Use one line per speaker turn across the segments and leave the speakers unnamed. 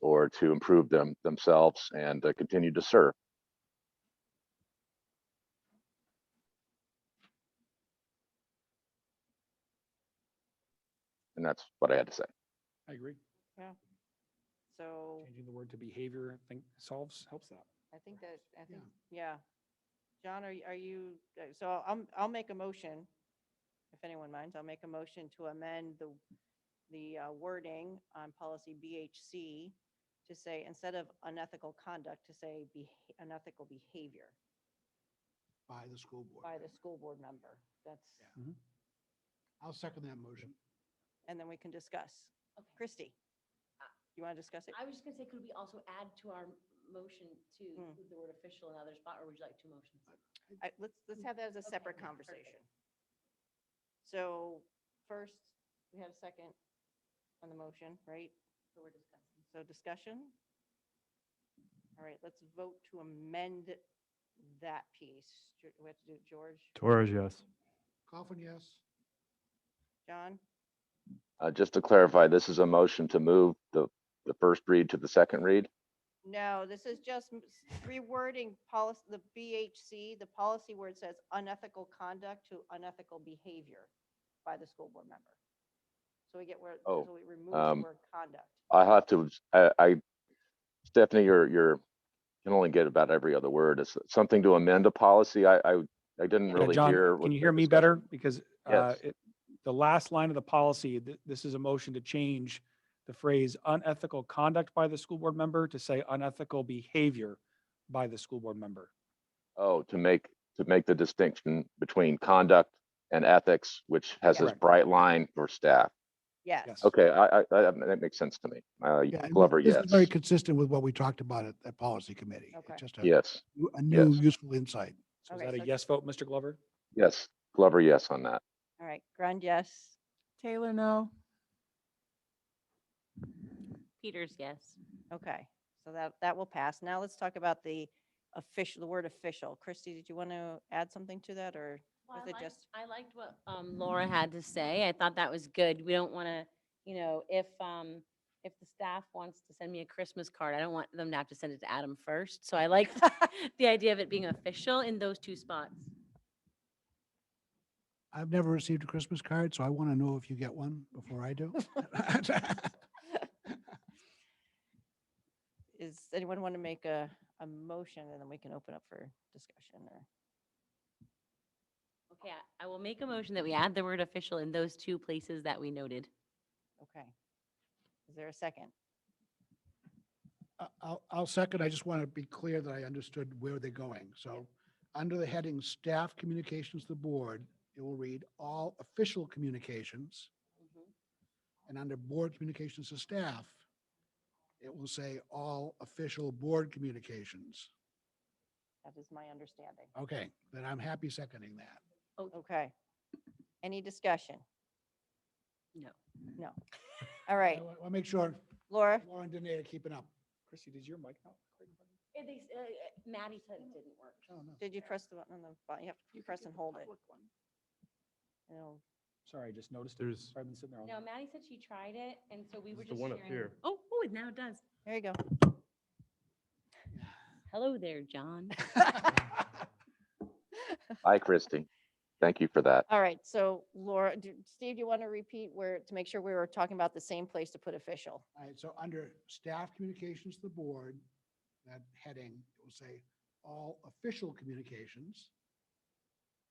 or to improve them themselves and uh, continue to serve. And that's what I had to say.
I agree.
So
Changing the word to behavior, I think solves, helps that.
I think that, I
Yeah.
think, yeah. John, are, y- are you, uh, so I'm, I'll make a motion. If anyone minds, I'll make a motion to amend the, the uh, wording on policy BHC to say, instead of unethical conduct, to say be, unethical behavior
by the school board.
by the school board member. That's,
Yeah.
Mhm.
I'll second that motion.
and then we can discuss.
Okay,
Christy, you want to discuss it?
I was just gonna say, could we also add to our motion to
Hmm.
include the word official in other spot, or would you like two motions?
I, let's, let's have that as a
Okay,
separate
yeah, perfect.
conversation. So first, we have a second on the motion, right?
So we're discussing.
So discussion? All right, let's vote to amend that piece. Do We have to do it, George,
Torres, yes.
Coughlin, yes.
John,
Uh, just to clarify, this is a motion to move the, the first read to the second read.
No, this is just m- s- rewording policy, the BHC, the policy where it says unethical conduct to unethical behavior by the school board member. So we get where,
Oh,
so we remove the
um,
word conduct.
I have to, I, I, Stephanie, you're, you're, can only get about every other word. It's something to amend a policy. I, I, I didn't
Yeah,
really
John,
hear. what
Can you
the
hear me
discussion-
better? Because uh,
Yes.
it- the last line of the policy, th- this is a motion to change the phrase unethical conduct by the school board member to say unethical behavior by the school board member.
Oh, to make, to make the distinction between conduct and ethics, which has this
Correct.
bright line for staff.
Yes.
Yes.
Okay, I, I, I- that makes sense to me. Uh,
Yeah, and
Glover,
this
yes.
is Very consistent with what we talked about at that policy committee. It's
Okay.
Just a,
Yes,
new- a new
Yes.
useful insight.
So is
Okay,
that
so-
a yes vote, Mr. Glover?
yes. Glover, yes on that.
All right, Grund, yes.
Taylor, no.
Peters, yes.
Okay, so that, that will pass. Now let's talk about the official, the word official. Christy, did you want to add something to that or?
Well,
Was
I
it
liked,
just-
I liked what um, Laura had to say. I thought that was good. We don't want to, you know, if, um, if the staff wants to send me a Christmas card, I don't want them to have to send it to Adam first. So I liked the idea of it being official in those two spots.
I've never received a Christmas card, so I want to know if you get one before I do.
Is anyone want to make a, a motion and then we can open up for discussion or?
Okay, I I will make a motion that we add the word official in those two places that we noted.
Okay. Is there a second?
I- I'll, I'll second. I just want to be clear that I understood where they're going. So under the heading Staff Communications to the Board, it will read all official communications.
Mm-hmm.
And under board communications to staff, it will say all official board communications.
That is my understanding.
Okay, then I'm happy seconding that.
Okay. Any discussion?
No.
No. All right,
I'll make sure
Laura,
Laura and Danae are keeping up.
Chrissy, did your mic not? click?
Yeah, they s- uh, uh, Maddie said it didn't work.
Oh, no.
did you press the button on the, button? you have to press and hold it? You know,
Sorry, I just noticed. it.
There's-
Sorry, I've been sitting there all
No,
night.
Maddie said she tried it, and so we were
It's
just
the one up
sharing-
here.
Oh, oh, it now does.
There you go.
Hello there, John.
Hi, Christy. Thank you for that.
All right, so Laura, do, Steve, do you want to repeat where, to make sure we were talking about the same place to put official?
All right, so under staff communications to the board, that heading, it will say all official communications.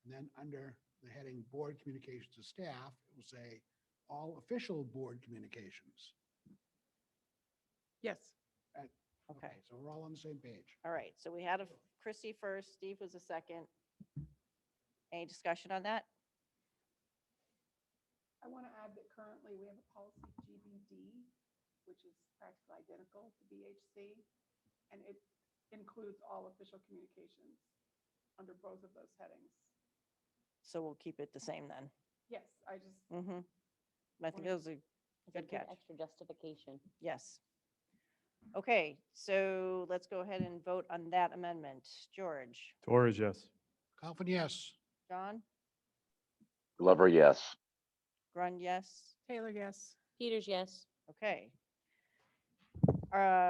And then under the heading board communications to staff, it will say all official board communications.
Yes.
Okay,
So we're all on the same page.
all right, so we had a Chrissy first, Steve was the second. Any discussion on that?
I want to add that currently we have a policy GBD, which is practically identical to BHC, and it includes all official communications under both of those headings.
So we'll keep it the same then.
Yes, I just,
Mm-hmm. I think
Wonderful.
that was a
It's a
good catch.
Extra justification.
Yes. Okay, so let's go ahead and vote on that amendment. George,
Torres, yes.
Coughlin, yes.
John,
Glover, yes.
Grund, yes?
Taylor, yes.
Peters, yes.
Okay. Uh,